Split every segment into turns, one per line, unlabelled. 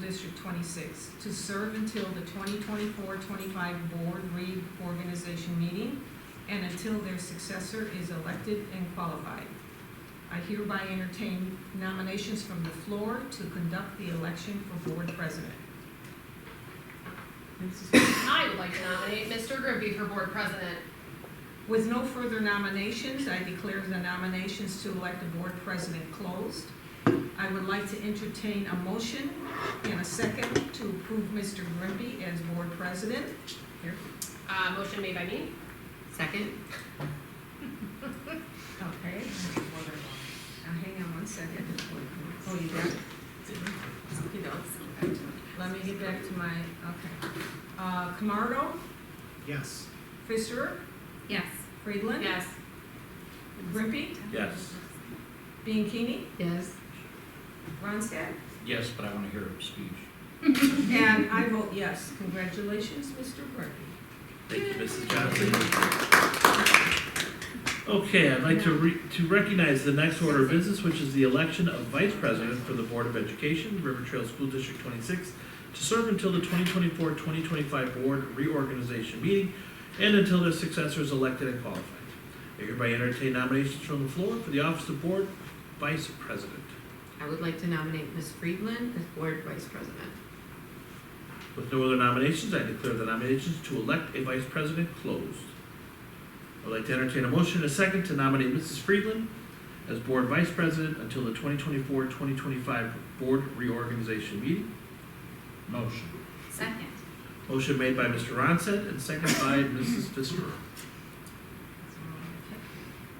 District twenty-six, to serve until the 2024-25 board reorganization meeting and until their successor is elected and qualified. I hereby entertain nominations from the floor to conduct the election for board president.
I would like to nominate Mr. Grimby for board president.
With no further nominations, I declare the nominations to elect a board president closed. I would like to entertain a motion and a second to approve Mr. Grimby as board president.
Uh, motion made by me.
Second?
Okay. Now, hang on one second. Oh, you got it? Okey doke. Let me get back to my, okay. Uh, Camardo,
Yes.
Fisher,
Yes.
Friedland.
Yes.
Grimby,
Yes.
Bianchini,
Yes.
Ronstadt.
Yes, but I want to hear him speak.
And I vote yes. Congratulations, Mr. Grimby.
Thank you, Mrs. Johnson. Okay, I'd like to re, to recognize the next order of business, which is the election of vice president for the Board of Education, River Trail School District twenty-six, to serve until the 2024-2025 board reorganization meeting and until their successor is elected and qualified. I hereby entertain nominations from the floor for the office of board vice president.
I would like to nominate Ms. Friedland as board vice president.
With no other nominations, I declare the nominations to elect a vice president closed. I'd like to entertain a motion and a second to nominate Mrs. Friedland as board vice president until the 2024-2025 board reorganization meeting. Motion.
Second.
Motion made by Mr. Ronstadt and seconded by Mrs. Fisker.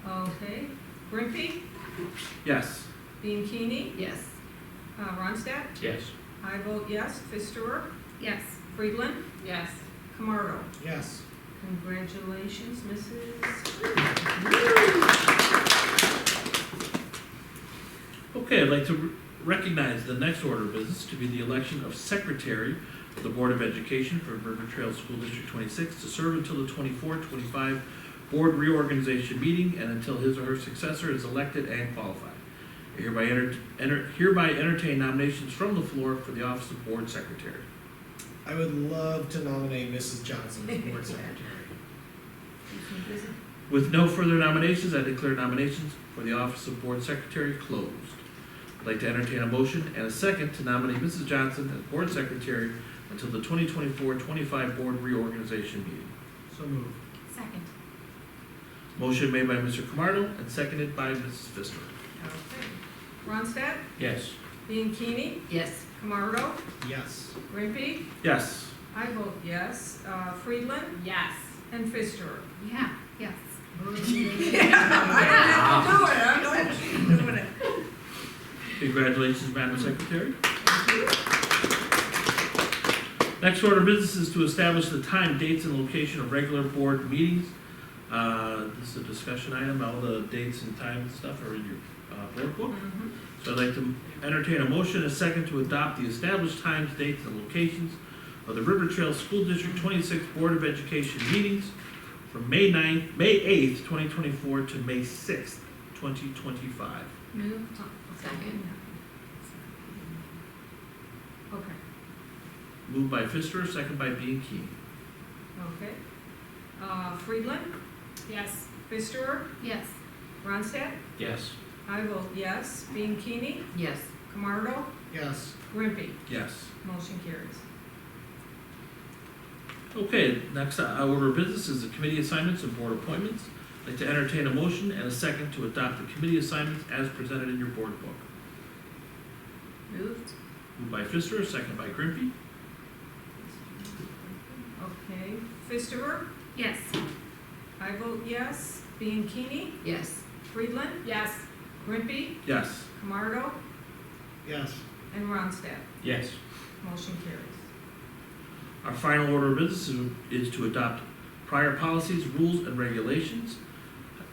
Okay, Grimpy,
Yes.
Bianchini,
Yes.
uh, Ronstadt,
Yes.
I vote yes, Fisterer,
Yes.
Friedland,
Yes.
Camardo.
Yes.
Congratulations, Mrs.
Okay, I'd like to re- recognize the next order of business to be the election of secretary of the Board of Education for River Trail School District twenty-six to serve until the 24-25 board reorganization meeting and until his or her successor is elected and qualified. I Hereby enter, enter- hereby entertain nominations from the floor for the office of board secretary.
I would love to nominate Mrs. Johnson as board secretary.
With no further nominations, I declare nominations for the office of board secretary closed. I'd like to entertain a motion and a second to nominate Mrs. Johnson as board secretary until the 2024-25 board reorganization meeting.
So moved.
Second.
Motion made by Mr. Camardo and seconded by Mrs. Fister.
Okay. Ronstadt,
Yes.
Bianchini,
Yes.
Camardo,
Yes.
Grimpy,
Yes.
I vote yes, uh, Friedland,
Yes.
and Fisterer.
Yeah, yes.
I don't have to do it, I'm glad she's doing it.
Congratulations, Madam Secretary. Next order of business is to establish the time, dates, and location of regular board meetings. Uh, This is a discussion item, all the dates and time and stuff are in your uh, board book.
Mhm.
So I'd like to entertain a motion, and a second, to adopt the established times, dates, and locations of the River Trail School District twenty-six Board of Education meetings from May 9th, May eighth, twenty twenty-four to May sixth, twenty twenty-five.
Move. Second.
Okay,
Moved by Fister, second by Bianchini.
okay. Uh, Friedland,
Yes.
Fisterer,
Yes.
Ronstadt,
Yes.
I vote yes, Bianchini,
Yes.
Camardo,
Yes.
Grimpy,
Yes.
motion carries.
Okay, next uh, order of business is the committee assignments and board appointments. I'd like to entertain a motion and a second to adopt the committee assignments as presented in your board book.
Moved.
Moved by Fister, second by Grimpy.
Okay, Fisterer,
Yes.
I vote yes, Bianchini,
Yes.
Friedland,
Yes.
Grimpy,
Yes.
Camardo,
Yes.
and Ronstadt.
Yes.
Motion carries.
Our final order of business is is to adopt prior policies, rules, and regulations.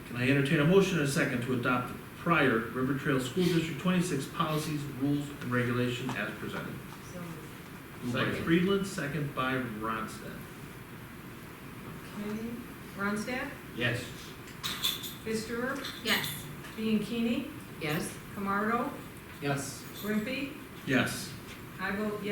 Can I entertain a motion and a second to adopt the prior River Trail School District twenty-six policies, rules, and regulations as presented?
So
Moved by
Second.
Friedland, second by Ronstadt.
Okay, Ronstadt,
Yes.
Fisterer,
Yes.
Bianchini,
Yes.
Camardo,
Yes.
Grimpy,
Yes.
I vote yes.